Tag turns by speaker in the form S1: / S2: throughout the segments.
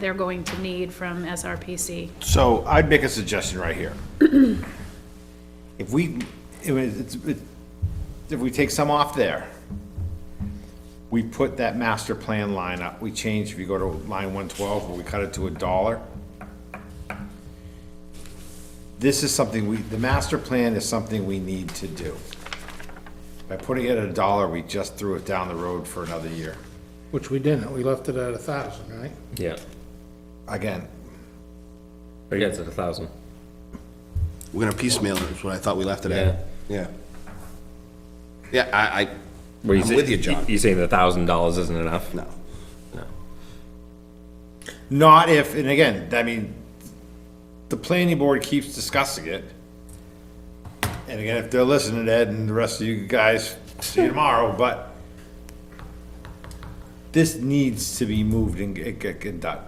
S1: they're going to need from SRPC.
S2: So I'd make a suggestion right here. If we, it was- it's- it- if we take some off there, we put that master plan line up, we change, if you go to line one twelve, where we cut it to a dollar. This is something we, the master plan is something we need to do. By putting it at a dollar, we just threw it down the road for another year.
S3: Which we didn't, we left it at a thousand, right?
S4: Yeah,
S2: Again,
S4: but yeah, it's at a thousand.
S5: We're gonna piecemeal it, is what I thought we left it
S4: Yeah.
S5: at. Yeah. Yeah, I, I,
S4: Where
S5: I'm
S4: say-
S5: with you, John.
S4: You saying the thousand dollars isn't enough?
S5: No.
S2: Not if, and again, I mean, the planning board keeps discussing it. And again, if they're listening, Ed and the rest of you guys, see you tomorrow, but this needs to be moved and get, get, get done.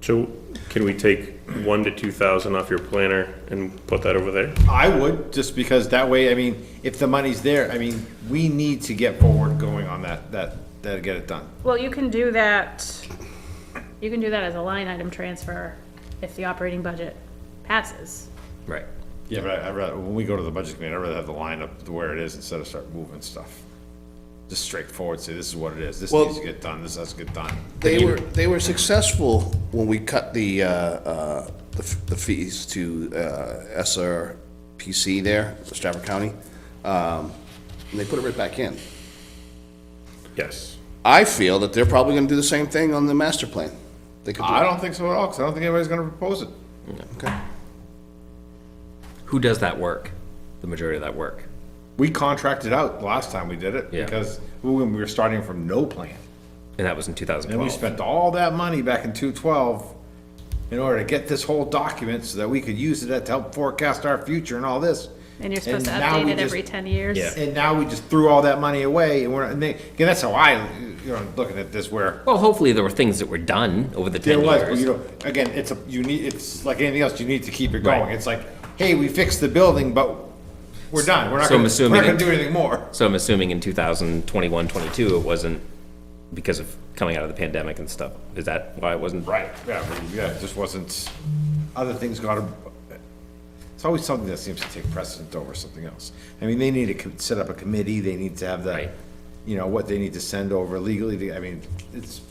S6: So can we take one to two thousand off your planner and put that over there?
S2: I would, just because that way, I mean, if the money's there, I mean, we need to get forward going on that, that, that, get it done.
S1: Well, you can do that, you can do that as a line item transfer if the operating budget passes.
S4: Right.
S2: Yeah, but I, I rather, when we go to the budget committee, I'd rather have the line up to where it is instead of start moving stuff. Just straightforward, say, this is what it is, this
S5: Well-
S2: needs to get done, this has to get done.
S5: they were, they were successful when we cut the, uh, uh, the f- the fees to, uh, SRPC there, Stratford County. Um, and they put it right back in.
S6: Yes.
S5: I feel that they're probably gonna do the same thing on the master plan. They could do
S2: I don't think so at all, because I don't think anybody's gonna propose it.
S5: Okay.
S4: Who does that work? The majority of that work.
S2: We contracted out the last time we did it,
S4: Yeah.
S2: because we were we were starting from no plan.
S4: And that was in two thousand
S2: And we
S4: twelve.
S2: spent all that money back in two twelve in order to get this whole document so that we could use it to help forecast our future and all this.
S1: And you're supposed to
S2: now
S1: update
S2: we
S1: it
S2: just-
S1: every ten years.
S4: Yeah.
S2: And now we just threw all that money away, and we're, and they, again, that's how I, you know, looking at this where
S4: Well, hopefully there were things that were done over the
S2: There
S4: ten
S2: was, but you
S4: years.
S2: know, again, it's a, you need, it's like anything else, you need to keep it going.
S4: Right.
S2: It's like, hey, we fixed the building, but we're done. We're not
S4: So I'm
S2: gonna, we're
S4: assuming
S2: not gonna
S4: it-
S2: do anything more.
S4: So I'm assuming in 2021, 22, it wasn't because of coming out of the pandemic and stuff. Is that why it wasn't?
S2: Right, yeah, but yeah, it just wasn't, other things gotta, it's always something that seems to take precedent over something else. I mean, they need to co- set up a committee, they need to have the,
S4: Right.
S2: you know, what they need to send over legally, to- I mean, it's.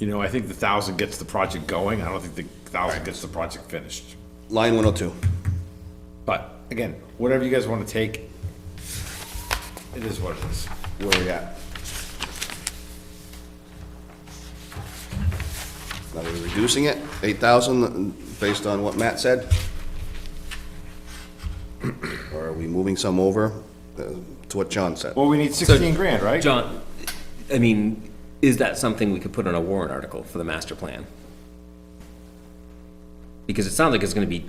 S2: You know, I think the thousand gets the project going, I don't think the thousand gets the project finished.
S5: Line one oh two.
S2: But again, whatever you guys want to take, it is what it is.
S5: Where we at? Now we're reducing it, eight thousand, based on what Matt said? Or are we moving some over uh, to what John said?
S2: Well, we need sixteen grand, right?
S4: John, I mean, is that something we could put on a warrant article for the master plan? Because it sounds like it's gonna be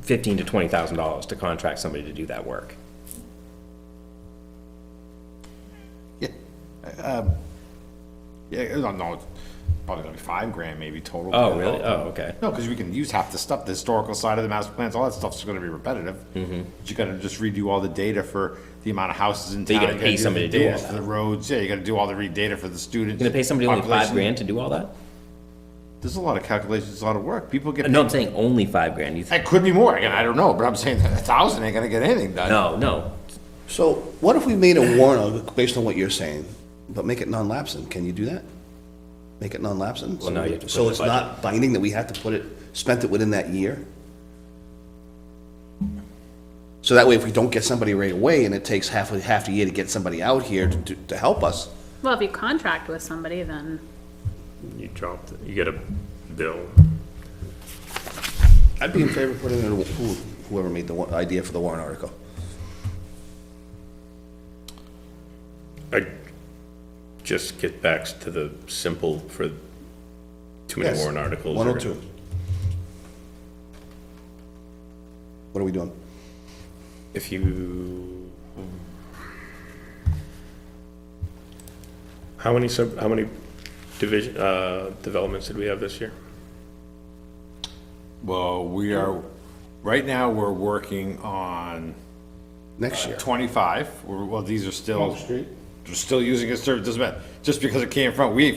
S4: fifteen to twenty thousand dollars to contract somebody to do that work.
S2: Yeah, no, no, it's probably gonna be five grand maybe total.
S4: Oh, really? Oh, okay.
S2: No, because we can use half the stuff, the historical side of the master plans, all that stuff's gonna be repetitive. Mm-hmm. You gotta just redo all the data for the amount of houses in town.
S4: you gotta pay
S2: do the
S4: somebody to do
S2: data
S4: all
S2: For the roads, yeah, you gotta do all the redata for the students.
S4: Gonna pay somebody only five
S2: population.
S4: grand to do all that?
S2: There's a lot of calculations, a lot of work. People get,
S4: No, I'm saying only five grand. You think?
S2: that could be more, again, I don't know, but I'm saying that a thousand ain't gonna get anything done.
S4: No, no.
S5: So what if we made a warrant article based on what you're saying, but make it non-lapsing? Can you do that? Make it non-lapsing?
S4: Well, now you have to put
S5: So
S4: the
S5: it's
S4: budget.
S5: not binding that we have to put it, spent it within that year? So that way, if we don't get somebody right away and it takes half, a half a year to get somebody out here to, to help us,
S1: Well, if you contract with somebody, then,
S6: You dropped, you get a bill.
S5: I'd be in favor of putting it in, who- whoever made the wa- idea for the warrant article.
S6: I just get back to the simple for too many
S5: Yes.
S6: warrant articles.
S5: One or two. What are we doing?
S6: If you. How many sub, how many division, uh, developments did we have this year?
S2: Well, we are, right now, we're working on
S5: Next year?
S2: twenty-five, We're- well, these are still, they're still using it, doesn't matter. just because it came from, we